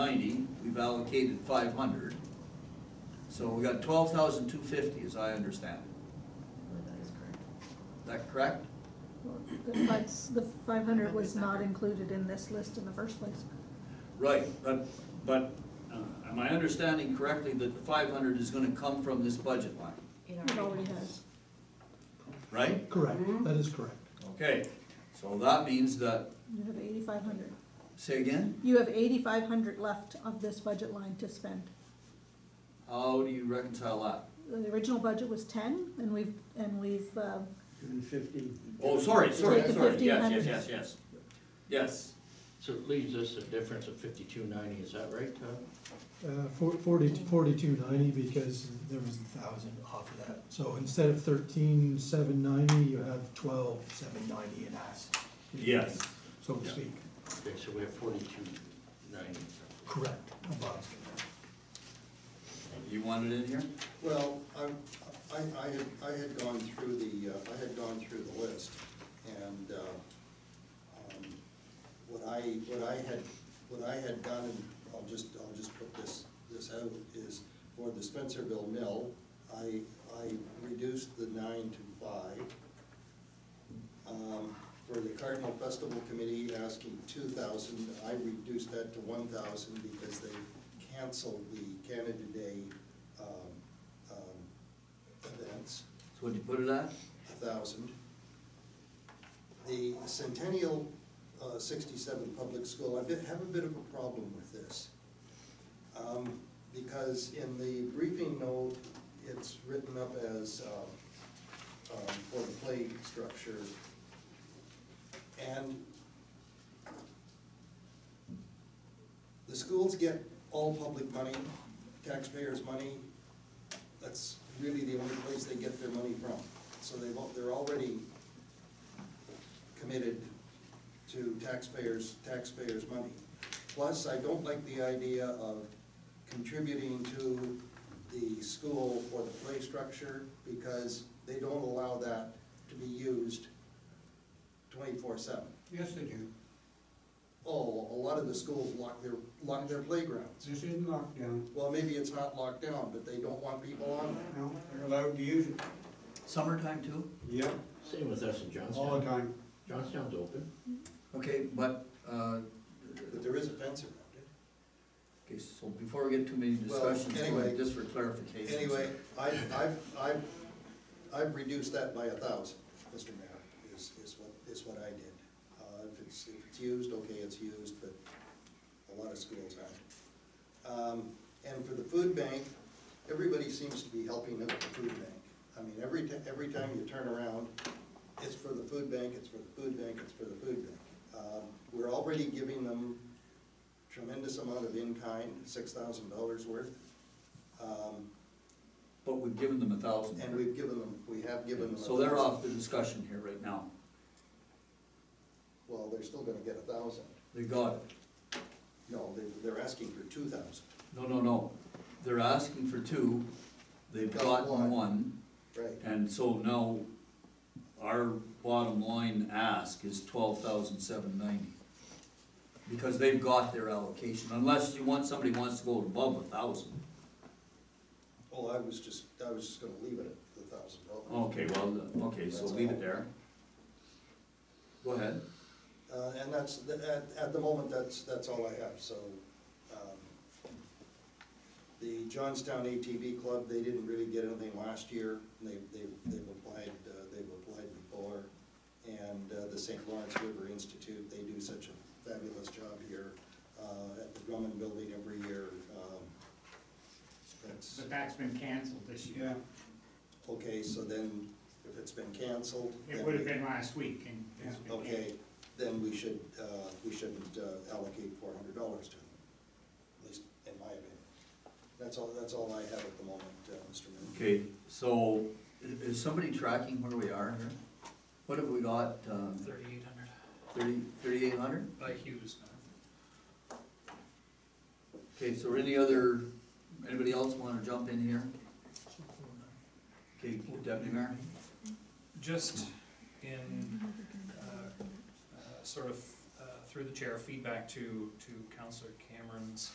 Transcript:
ninety, we've allocated five hundred. So we got twelve thousand two fifty, as I understand it. That is correct. Is that correct? Well, the fives- The five hundred was not included in this list in the first place. Right, but, but, uh, am I understanding correctly that the five hundred is gonna come from this budget line, It already has. right? Correct, that is correct. Okay, so that means that, You have eighty-five hundred. say again, You have eighty-five hundred left of this budget line to spend. how do you reconcile that? The original budget was ten, and we've, and we've, uh, Given fifty. Oh, sorry, sorry, Take the sorry, yes, yes, 1500. yes, yes. Yes, So it leaves us a difference of fifty-two ninety, is that right, Todd? Uh, four- forty- 4290 because there was a thousand off of that. So instead of thirteen seven ninety, you have twelve seven ninety in us. Yes. So to Yeah. speak. Okay, so we have forty-two ninety. Correct. above. you want it in here? Well, I'm- I, I had, I had gone through the, uh, I had gone through the list, and uh, um, what I, what I had, what I had done, and I'll just, I'll just put this, this out, is for the Spencerville Mill, I, I reduced the nine to five. Um, For the Cardinal Festival Committee asking two thousand, I reduced that to one thousand because they canceled the Canada Day um, um, events, So what'd you put it at? a thousand. The Centennial uh, sixty-seven Public School, I bit- have a bit of a problem with this. Um, Because in the briefing note, it's written up as um, um, for the play structure. And the schools get all public money, taxpayers' money. That's really the only place they get their money from. So they've, al- they're already committed to taxpayers, taxpayers' money. Plus, I don't like the idea of contributing to the school or the play structure because they don't allow that to be used twenty-four seven. Yes, they do. Oh, a lot of the schools lock their, lock their playgrounds. This isn't lockdown. Well, maybe it's not locked down, but they don't want people on there. No, they're allowed to use it. Summertime too? Yep. Same with us in All Johnstown. the time. Johnstown's open. Okay, but, uh, But there is a fence around it. okay, so before we get too many Well, discussions, anyway. just for clarification. Anyway, I, I've, I've, I've reduced that by a thousand, Mr. Mayor, is, is what, is what I did. Uh, if it's, if it's used, okay, it's used, but a lot of schools aren't. Um, and for the food bank, everybody seems to be helping out the food bank. I mean, every, ti- every time you turn around, it's for the food bank, it's for the food bank, it's for the food bank. Um, we're already giving them tremendous amount of in-kind, six thousand dollars worth. Um, But we've given them a thousand. and we've given them, we have given them. a So they're thousand. off the discussion here right now. Well, they're still gonna get a thousand. They got it. No, they, they're asking for two thousand, No, no, no. They're asking for two, they've Got gotten one. one. right? And so now, our bottom line ask is twelve thousand seven ninety. Because they've got their allocation, unless you want, somebody wants to go above a thousand. Oh, I was just, I was just gonna leave it at the thousand dollars. Okay, well, okay, so leave it there. Go ahead. Uh, and that's, th- at, at the moment, that's, that's all I have, so, um, the Johnstown ATV Club, they didn't really get anything last year, they, they, they've applied, uh, they've applied before. And, uh, the St. Lawrence River Institute, they do such a fabulous job here, uh, at the Drummond Building every year, um, that's. But that's been canceled this Yeah. year. Okay, so then, if it's been canceled. It then would have we- been last week and it's been Okay, then we should, uh, we shouldn't uh, allocate four hundred dollars to them, at least in my opinion. That's all, that's all I have at the moment, uh, Mr. Mayor. Okay, so, i- is somebody tracking where we are here? What have we got, um, Thirty-eight hundred thirty, thirty-eight hundred? by Hughes. Okay, so any other, anybody else wanna jump in here? Okay, Deputy Mayor? Just in, uh, uh, sort of, uh, through the chair, feedback to, to Counselor Cameron's